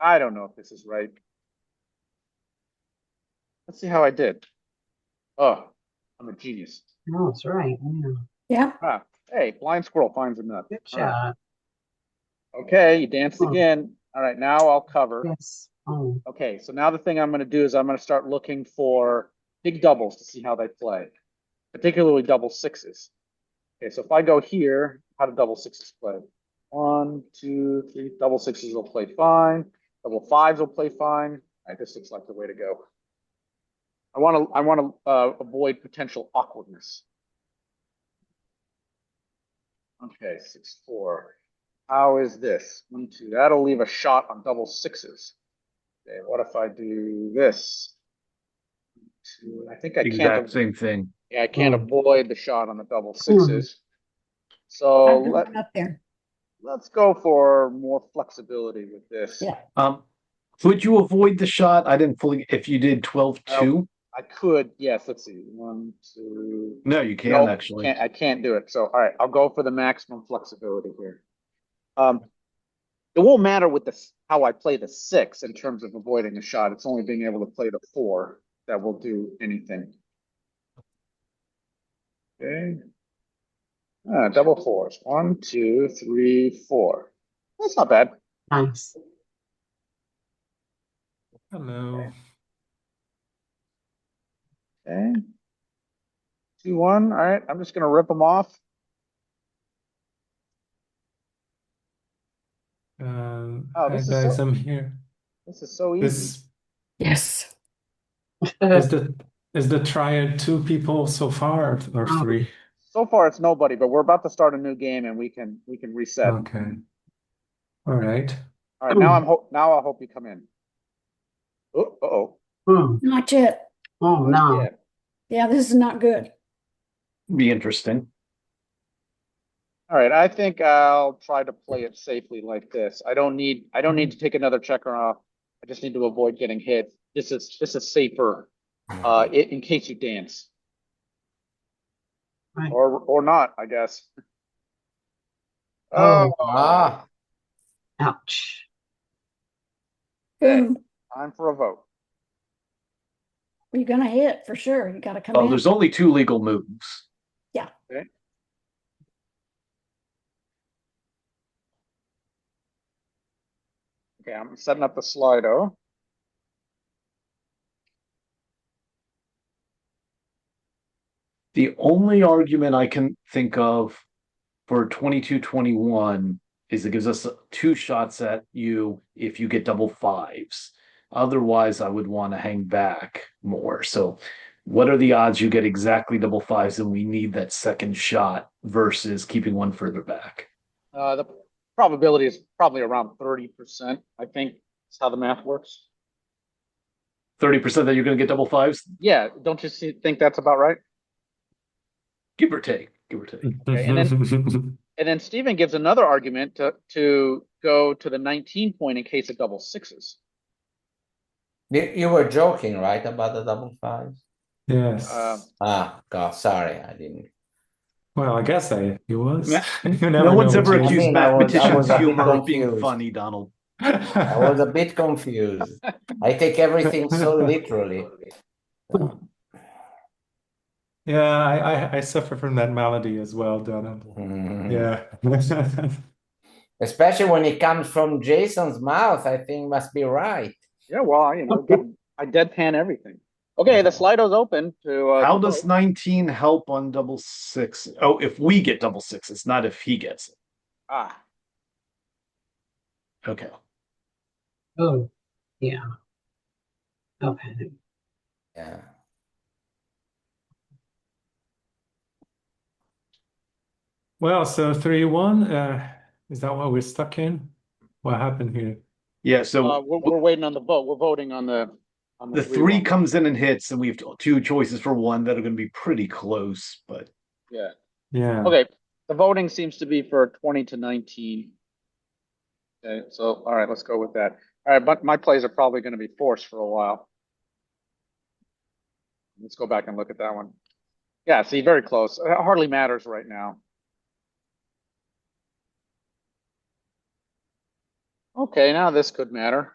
I don't know if this is right. Let's see how I did. Oh, I'm a genius. No, it's right. Yeah. Yeah, Ah, hey, blind squirrel finds a nut. Good All right. job. Okay, you danced Oh. again. All right, now I'll cover. Yes. Oh, Okay, so now the thing I'm gonna do is I'm gonna start looking for big doubles to see how they play, particularly double sixes. Okay, so if I go here, how do double sixes play? One, two, three, double sixes will play fine, double fives will play fine. All right, this looks like the way to go. I wanna, I wanna, uh, avoid potential awkwardness. Okay, six, four. How is this? One, two, that'll leave a shot on double sixes. Okay, what if I do this? Two, and I think I can't, Exact same thing. yeah, I can't Mm. avoid the shot on the double sixes. So I've let, got up there. let's go for more flexibility with this. Yeah. Um, would you avoid the shot? I didn't fully, if you did twelve two, I could, yes, let's see, one, two. no, you Nope, can actually. Can't, I can't do it, so, all right, I'll go for the maximum flexibility here. Um, it won't matter with this, how I play the six in terms of avoiding a shot, it's only being able to play the four that will do anything. Okay. Uh, double fours, one, two, three, four, that's not bad, nice. Hello. okay. Two, one, all right, I'm just gonna rip them off, Um, Oh, hi this is guys, so- I'm here. this is so easy. This Yes. is the is the triad two people so far or Oh. three? So far, it's nobody, but we're about to start a new game and we can, we can reset. Okay. All right. All right, now I'm ho- now I hope you come in. Oh, uh-oh. Hmm. Not yet. Oh, no. Yeah. Yeah, this is not good. Be interesting. All right, I think I'll try to play it safely like this. I don't need I don't need to take another checker off. I just need to avoid getting hit. This is this is safer uh i- in case you dance. Right. Or or not, I guess. Oh. Oh, Ouch. Okay. Boom. time for a vote. You're gonna hit for sure. You gotta come Well, in. Uh, there's only two legal moves. Okay, I'm setting up the Slido. The only argument I can think of for twenty-two, twenty-one is it gives us two shots at you if you get double fives. Otherwise, I would want to hang back more. So what are the odds you get exactly double fives and we need that second shot versus keeping one further back? Uh the probability is probably around thirty percent, I think. That's how the math works. Thirty percent that you're going to get double fives, Yeah, don't you see, think that's about right? give or take, give or take. and And then Stephen gives another argument to, to go to the 19 point in case of double sixes. You, you were joking, right, about the double fives? yes. Um, Ah, God, sorry, I didn't. well, I guess I he was. Yeah. You No never one's know ever what you- accused mean, I was- I mathematicians was a bit humor of being confused. funny, Donald. I was a bit confused. I take everything so literally. yeah, I, I I suffer from that malady as well, Donald. Mhm. Yeah. Especially when it comes from Jason's mouth, I think must be right. yeah, well, I, you know, I deadpan everything. Okay, the Slido's open to. Uh, How to does vote. nineteen help on double six? Oh, if we get double sixes, not if he gets it. Ah, Okay. Oh, yeah. Okay. Yeah. well, so three one. Uh, is that what we're stuck in? What happened here? Yeah, uh, so we're, we're waiting on the vote. We're voting on the. On the three one. comes in and hits, and we have two choices for one that are gonna be pretty close, but Yeah. Yeah. Okay, the voting seems to be for 20 to 19. Okay, so, all right, let's go with that. All right, but my plays are probably going to be forced for a while. Let's go back and look at that one. Yeah, see, very close. It hardly matters right now. Okay, now this could matter.